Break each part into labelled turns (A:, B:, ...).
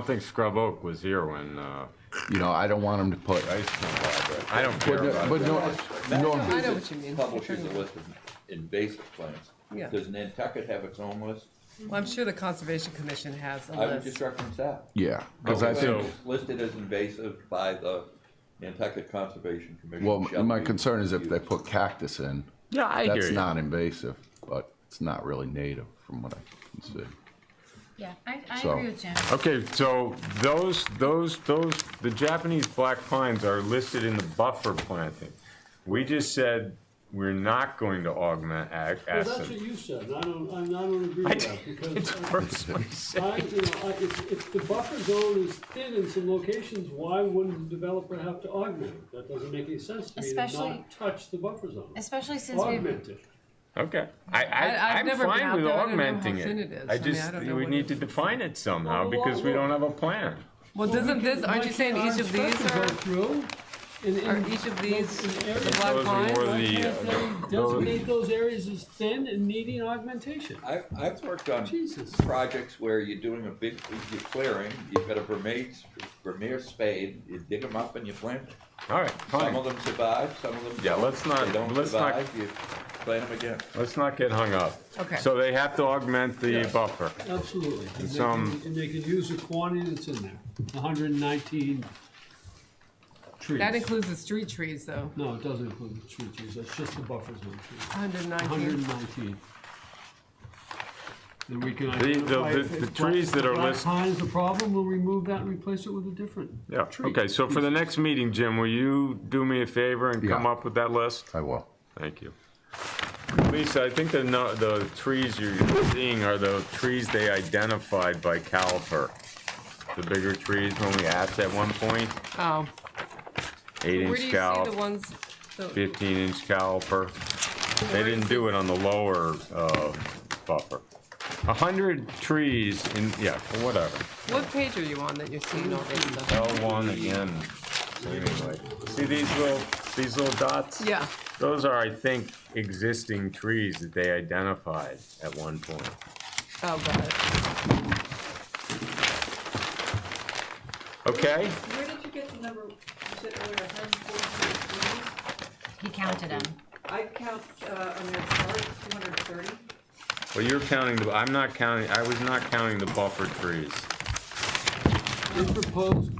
A: don't think Scrub Oak was here when, uh,
B: You know, I don't want them to put,
A: I used to know about it. I don't
B: but
A: care
B: no, but
A: about it.
B: no, no,
C: I know what you mean.
D: Publishes a list of invasive plants.
C: Yeah.
D: Does Nantucket have its own list?
C: Well, I'm sure the Conservation Commission has a
D: I would just
C: list.
D: reference that.
B: yeah, because I
A: Okay,
B: think,
A: so-
D: Listed as invasive by the Nantucket Conservation Commission.
B: well,
D: shall
B: my
D: be
B: concern is if they
D: used.
B: put cactus in,
A: Yeah, I hear
B: that's
A: you.
B: not invasive, but it's not really native from what I can see.
E: Yeah, I, I
B: So-
E: agree with Jim.
A: Okay, so those, those, those, the Japanese black pines are listed in the buffer planting. We just said we're not going to augment ag,
F: Well, that's what
A: acid.
F: you said, and I don't, I don't agree with that, because
A: First one he said.
F: I, you know, I, if, if the buffer zone is thin in some locations, why wouldn't the developer have to augment it? That doesn't make any sense to me to
E: Especially-
F: not touch the buffer zone,
E: Especially since we,
F: augment it.
A: Okay, I,
C: I- I've
A: I, I'm
C: never been
A: fine
C: out
A: with
C: there. I don't know how
A: augmenting
C: thin it is.
A: it.
C: I
A: I
C: mean, I
A: just,
C: don't know
A: we
C: what
A: need
C: it
A: to
C: is.
A: define it somehow
F: Well, well,
A: because we
F: well.
A: don't have a plan.
C: Well, doesn't this, aren't you saying each of these are, are each of these the black
A: Those are more
C: pines?
A: than- The, uh,
F: Designate those areas as thin and needing augmentation.
D: I, I've worked on
F: Jesus.
D: projects where you're doing a big, you're clearing, you've got a Vermeer, Vermeer spade, you dig them up and you plant them.
A: All right,
D: Some
A: fine.
D: of them survive, some of them
A: Yeah,
D: don't.
A: let's not-
D: They don't
A: let's not-
D: survive, you plant them again.
A: Let's not get hung up.
C: Okay.
A: So they have to augment the buffer.
F: Absolutely, and they
A: some-
F: can, and they can use the quantity that's in there, hundred and nineteen trees.
C: That includes the street trees, though.
F: No, it doesn't include the tree trees, that's just the buffer zone trees,
C: 119.
F: hundred and nineteen. Then we can
A: the-
F: identify.
A: the-
F: if
A: the
F: black-
A: trees that are
F: black
A: list-
F: Pine's the problem, we'll remove that and replace it with a different.
A: Yeah,
F: tree.
A: okay, so for the next meeting, Jim, will you do me a favor and come
B: Yeah.
A: up with that list?
B: I will.
A: Thank you. Lisa, I think the, no- the trees you're seeing are the trees they identified by caliper. The bigger trees when we asked at one point,
C: Oh,
A: eight
C: where do
A: inch
C: you see the
A: caliper,
C: ones? the-
A: fifteen inch caliper. They didn't do it on the lower, uh, buffer. A hundred trees in, yeah, whatever.
C: What page are you on that you're seeing all this stuff?
A: L one again. Anyway, See these little, these little dots?
C: Yeah,
A: Those are, I think, existing trees that they identified at one point.
C: oh, got it.
A: Okay?
G: Where did you get the number, you said earlier, hundred and forty-three trees?
E: He counted them.
G: I count, uh, on that chart, two hundred and thirty.
A: Well, you're counting the, I'm not counting, I was not counting the buffer trees.
F: They proposed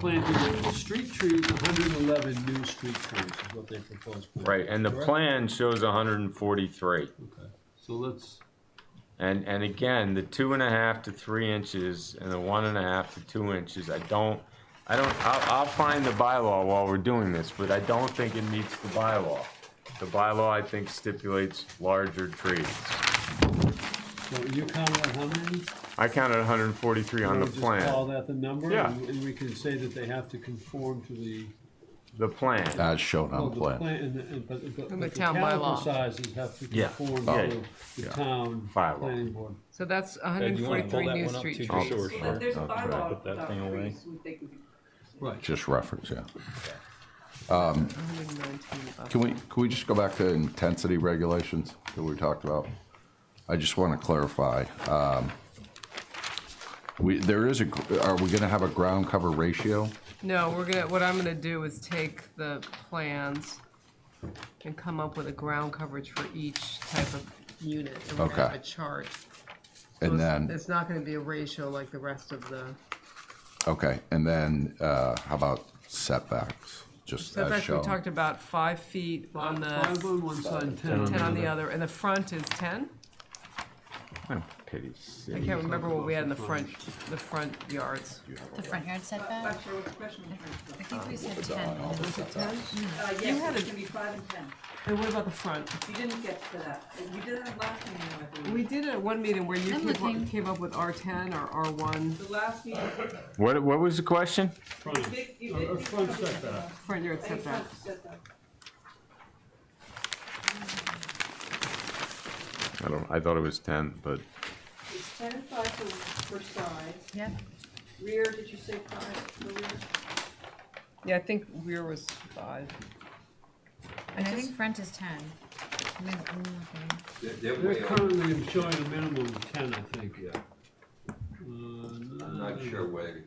F: planting the street trees, hundred and eleven new street trees is what they proposed. planting,
A: Right, and the
F: correct?
A: plan shows hundred and forty-three.
F: Okay, So let's,
A: And, and again, the two and a half to three inches and the one and a half to two inches, I don't, I don't, I'll, I'll find the bylaw while we're doing this, but I don't think it meets the bylaw. The bylaw, I think, stipulates larger trees.
F: so you counted on how many?
A: I counted hundred and forty-three on
F: Or
A: the
F: just Call
A: plan,
F: that the number?
A: Yeah.
F: And and we can say that they have to conform to the.
A: the plan.
B: As shown
F: well,
B: on
F: the
B: plan.
F: And, the- and, but, but.
C: And
F: but
C: the town bylaw.
F: caliper Sizes have to
A: Yeah.
F: conform
A: Oh.
F: to the town
A: Bylaw.
F: planning board.
C: So that's
H: And you wanna
C: 143
H: hold that
C: new
H: one up
C: street
H: too,
C: trees.
H: just so we're
G: So
H: sure?
G: that there's a
A: That's right.
G: bylaw
H: Put that
G: about
H: thing away.
G: trees, we think we could.
F: Right.
B: Just reference, yeah.
C: 119 above.
B: Can we, can we just go back to intensity regulations that we talked about? I just want to clarify. um, We, there is a, gr- are we going to have a ground cover ratio?
C: No, we're gonna, what I'm gonna do is take the plans and come up with a ground coverage for each type of unit. And we're gonna have
B: Okay.
C: a chart. So
B: And
C: it's-
B: then,
C: It's not gonna be a ratio like the rest of the,
B: okay, and then uh, how about setbacks? Just
C: so
B: as
C: actually,
B: shown.
C: we talked about five feet on
F: Five
C: the,
F: on one side, and ten on the
C: ten on the
F: other.
C: other, and the front is ten?
A: Pity
C: I
A: city.
C: can't remember what we had in the front, the front yards.
E: The front yard setback,
G: I'm sure what the question was.
E: I think we said ten.
G: Uh, yes, it's gonna be five and ten.
C: And what about the front?
G: You didn't get to that. You did it last meeting, I believe.
C: We did it at one meeting where you
E: I'm
C: came
E: looking.
C: up, came up with R ten or R one,
G: The last meeting,
A: What, what was the question?
G: you
F: Front.
G: did, you
F: A-
G: did.
F: a
G: you
F: front
G: covered that.
F: setback.
C: front yard
G: I think
C: setback.
G: front setback.
A: I don't, I thought it was ten, but
G: It's ten and five for, for sides.
E: Yeah,
G: Rear, did you say five for rear?
C: Yeah, I think rear was five.
E: and I think front is ten. I'm gonna- I'm looking.
D: They're- They're
F: They're
D: way over.
F: currently showing a minimum of ten, I think. Uh,
D: not sure where